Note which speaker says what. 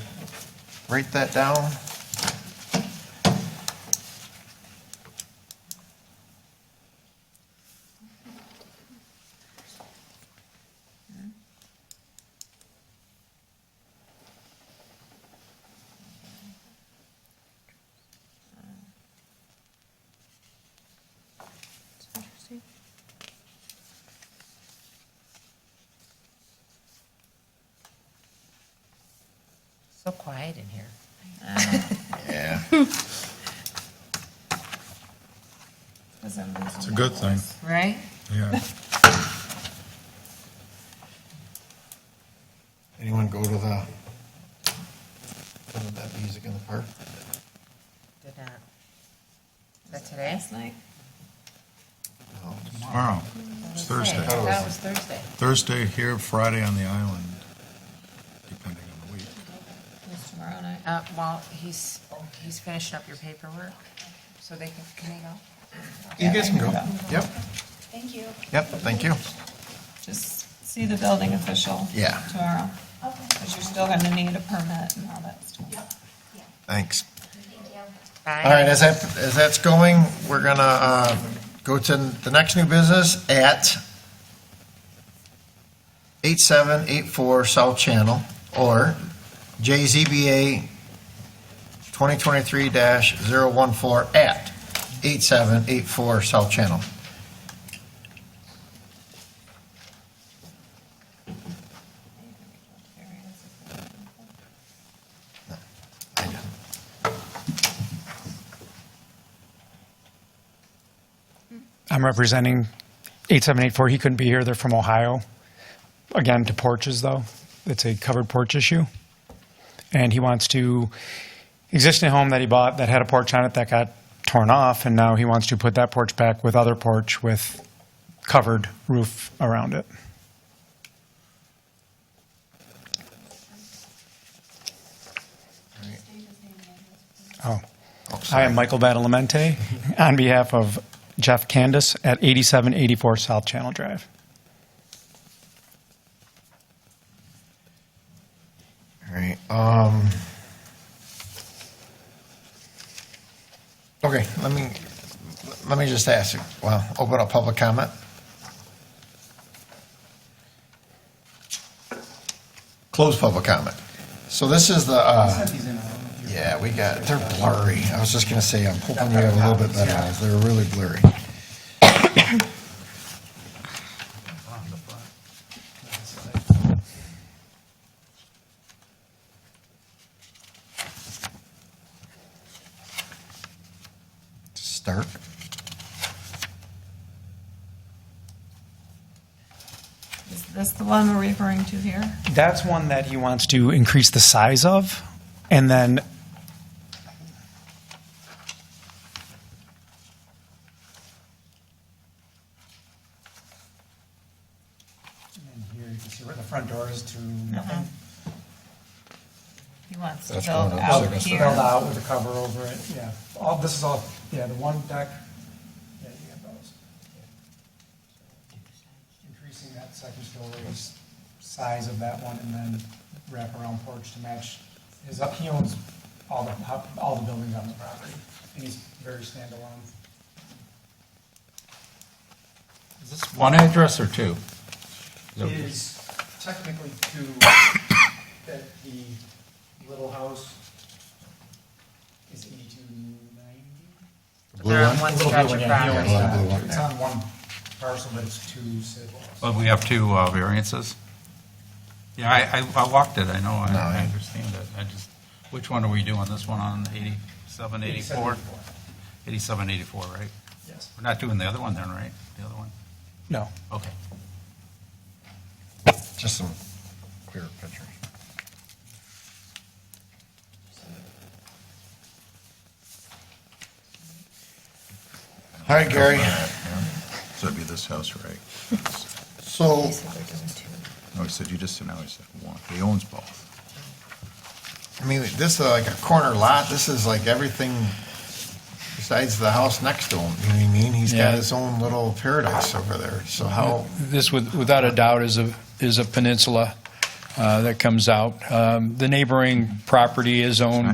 Speaker 1: write that down.
Speaker 2: So quiet in here.
Speaker 1: Yeah.
Speaker 3: It's a good thing,
Speaker 2: Right?
Speaker 3: yeah.
Speaker 1: Anyone go to the, to that music in the park?
Speaker 2: Did not. Is that today? Last night?
Speaker 1: No.
Speaker 3: Tomorrow, it's Thursday.
Speaker 2: That was Thursday.
Speaker 3: Thursday here, Friday on the island, depending on the week.
Speaker 2: It's tomorrow night. Uh, well, he's, he's finishing up your paperwork, so they can, can they go?
Speaker 1: You guys can go. Yep,
Speaker 4: Thank you.
Speaker 1: yep, thank you.
Speaker 4: Just see the building official.
Speaker 1: Yeah.
Speaker 4: Tomorrow. Because you're still gonna need a permit and all that stuff.
Speaker 1: Thanks.
Speaker 2: Bye.
Speaker 1: All right, as that, as that's going, we're gonna, uh, go to the next new business at eight seven eight four South Channel, or JZBA twenty twenty-three dash zero one four at eight seven eight four South Channel.
Speaker 5: I'm representing 8784. He couldn't be here. They're from Ohio. Again, to porches, though. It's a covered porch issue. And he wants to, existing home that he bought that had a porch on it that got torn off, and now he wants to put that porch back with other porch with covered roof around it. Oh. I am Michael Badalamente on behalf of Jeff Candace at 8784 South Channel Drive.
Speaker 1: All right, um. Okay, let me, let me just ask, you. well, open up public comment. Close public comment. So this is the, uh, yeah, we got, they're blurry. I was just gonna say, I'm hoping we have a little bit better eyes. They're really blurry. Stark.
Speaker 4: Is this the one we're referring to here?
Speaker 5: That's one that he wants to increase the size of, and then
Speaker 6: And here you can see where the front door is to nothing,
Speaker 4: He wants to
Speaker 1: That's
Speaker 4: build
Speaker 1: going up
Speaker 4: out
Speaker 1: second story.
Speaker 4: here.
Speaker 6: filled out with a cover over it, yeah. All, this is all, yeah, the one deck, yeah, you got those. Increasing that second story's size of that one and then wrap around porch to match his, up he owns all the, hou- all the buildings on the property. And he's very standalone.
Speaker 7: Is this one address or two?
Speaker 6: It is technically two, that the little house is eighty-two ninety?
Speaker 2: They're on one
Speaker 6: A little
Speaker 2: stretch
Speaker 6: bit,
Speaker 2: of
Speaker 6: yeah, yeah,
Speaker 2: property.
Speaker 6: yeah.
Speaker 1: blue one,
Speaker 6: It's on one parcel, but it's two siblings.
Speaker 7: Well, we have two uh, variances. Yeah, I, I- I walked it, I know, I-
Speaker 1: No,
Speaker 7: I
Speaker 1: yeah.
Speaker 7: understand that. I just, which one are we doing? This one on 87, 84? 87, 84, right?
Speaker 6: Yes.
Speaker 7: We're not doing the other one then, right? The other one?
Speaker 5: no.
Speaker 7: Okay.
Speaker 1: Just some clearer pictures. All right, Gary,
Speaker 3: So it'd be this house, right?
Speaker 1: so,
Speaker 3: No, he said, you just said, no, he said one. He owns both.
Speaker 1: I mean, this is like a corner lot, this is like everything besides the house next to him, you know what I mean? He's got
Speaker 8: Yeah.
Speaker 1: his own little paradise over there, so how,
Speaker 8: This with- without a doubt is a, is a peninsula uh, that comes out. Um, The neighboring property is owned